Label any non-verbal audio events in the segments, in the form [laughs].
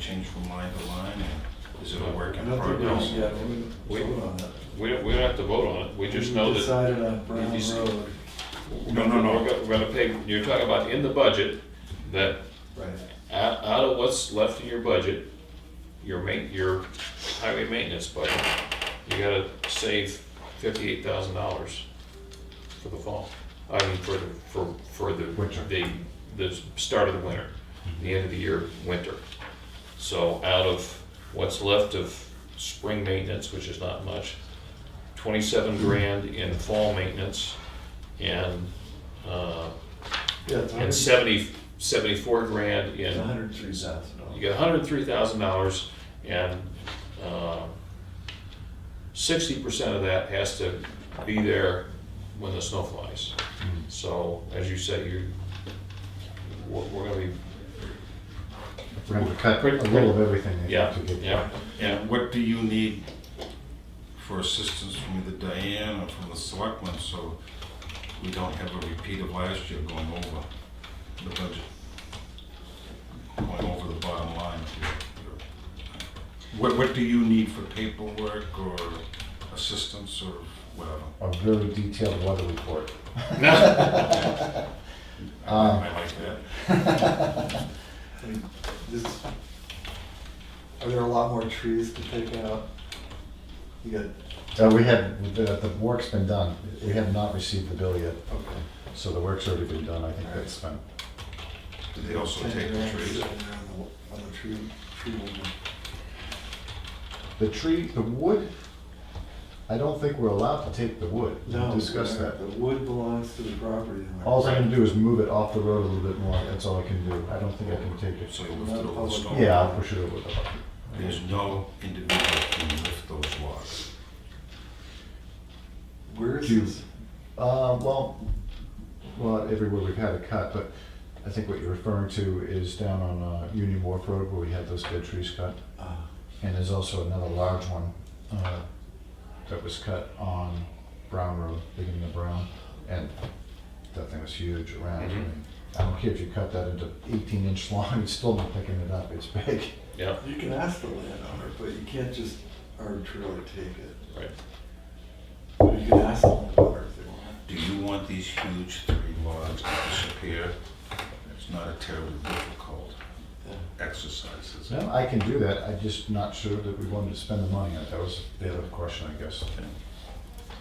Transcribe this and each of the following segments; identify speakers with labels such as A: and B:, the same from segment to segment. A: change from line to line, and is it a work in
B: Nothing
A: progress?
B: wrong, yeah, we
C: We-
B: didn't vote on that.
C: We don't, we don't have to vote on it, we just know
B: We
C: that.
B: Decided on Brown
C: You see-
B: Road,
A: No, no, no.
C: We're gonna- We're gonna pay, you're talking about in the budget, that
B: right,
C: out, out of what's left in your budget, your main, your highway maintenance budget, you gotta save fifty-eight thousand dollars for the fall. I mean, for, the for, for the,
A: Winter.
C: the, the start of the winter, the end of the year, winter. So out of what's left of spring maintenance, which is not much, twenty-seven grand in fall maintenance, and, uh,
B: yeah, it's a
C: and
B: hundred,
C: seventy, seventy-four grand in
B: it's a hundred and three thousand
C: you
B: dollars.
C: get hundred three thousand dollars and uh, sixty percent of that has to be there when the snow flies. So as you say, you, we're we're gonna be,
D: We're gonna cut a little of everything. I think,
C: yeah,
D: to get there.
C: yeah, yeah.
A: And what do you need for assistance from either Diane or from the selectmen, so we don't have a repeat of last year going over the budget? Going over the bottom line. What, what do you need for paperwork or assistance or whatever?
D: A very detailed weather report. Um,
A: I like that.
B: I mean, this- Are there a lot more trees to take out? You got,
D: uh, we had, the, the work's been done. We have not received the bill yet,
B: okay.
D: so the work's already been done. I think that's fine.
A: Do they also
B: Ten
A: take the
B: grand
A: trees?
B: sitting there On the- on the tree, tree limit.
D: The tree, the wood, I don't think we're allowed to take the wood. We
B: No.
D: Discuss that.
B: The wood belongs to the property. owner.
D: All I can do is move it off the road a little bit more. That's all I can do. I don't think I can take it.
A: So you lift it over the stone?
D: Yeah, I'll push it over the
A: There's no individual who can lift those logs.
B: Where is
D: Do-
B: this?
D: Uh, well, well, everywhere we've had a cut, but I think what you're referring to is down on uh, Union Wharf Road where we had those dead trees cut.
B: Ah,
D: And there's also another large one uh, that was cut on Brown Road, beginning of Brown. And that thing was huge around. I mean, I don't care if you cut that into 18 inch [laughs] long, it's still not picking it up. It's big.
C: Yeah,
B: You can ask the landowner, but you can't just arbitrarily take it.
C: right.
B: But you can ask the landowner if they want.
A: Do you want these huge three logs to disappear? It's not a terribly difficult
B: Yeah.
A: exercise, is it?
D: No, I can do that. I'm just not sure that we wanted to spend the money on it. That was the other question, I guess.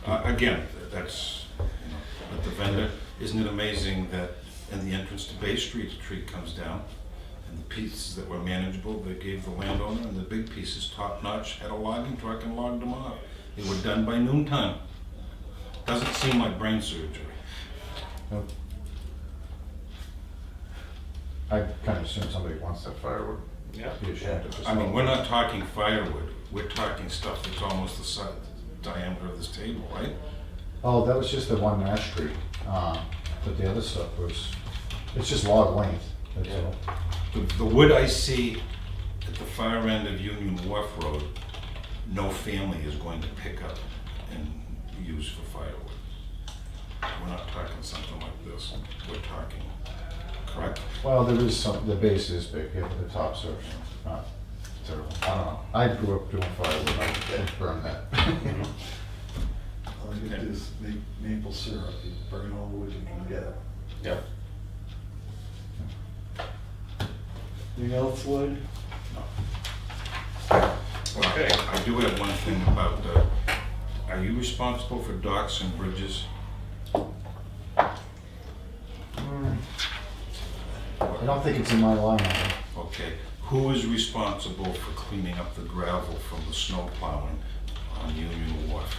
A: Uh, Again, that's, you know, but the vendor, isn't it amazing that in the entrance to Bay Street, a tree comes down? And the pieces that were manageable, they gave the landowner, and the big pieces, top notch, had a logging truck and logged them off. They were done by noontime. Doesn't seem like brain surgery.
D: Nope. I kind of assume somebody wants that firewood.
C: Yeah.
D: Be ashamed if it's
A: I mean,
D: not.
A: we're not talking firewood, we're talking stuff that's almost the size, diameter of this table, right?
D: Oh, that was just the one Nash Street, um, but the other stuff was, it's just log length, that's
C: Yeah.
D: all.
A: The, the wood I see at the far end of Union Wharf Road, no family is going to pick up and use for firewood. We're not talking something like this, we're talking, correct?
D: Well, there is some, the base is big, yeah, but the tops are not terrible. I don't know, I grew up doing firewood, I burned that.
B: All you can do is make maple syrup, you burn all the wood you can get.
C: Yeah.
B: Anything else, Lloyd?
C: Okay.
A: I do have one thing about, uh, are you responsible for docks and bridges?
D: I don't think it's in my line, item.
A: Okay, who is responsible for cleaning up the gravel from the snow plowing on Union Wharf?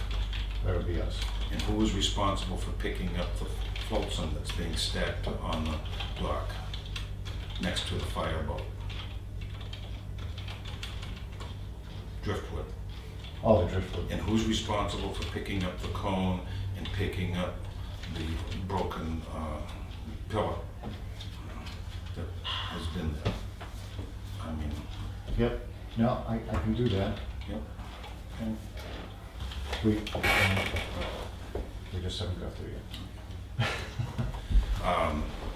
D: that would be us.
A: And who is responsible for picking up the flotsam that's being stacked on the dock next to the fireboat? Driftwood.
D: All the driftwood,
A: And who's responsible for picking up the cone and picking up the broken uh, pillar that has been there? I mean,
D: yep, no, I, I can do that.
A: yep.
D: We, um, we just haven't got through yet.
A: Um,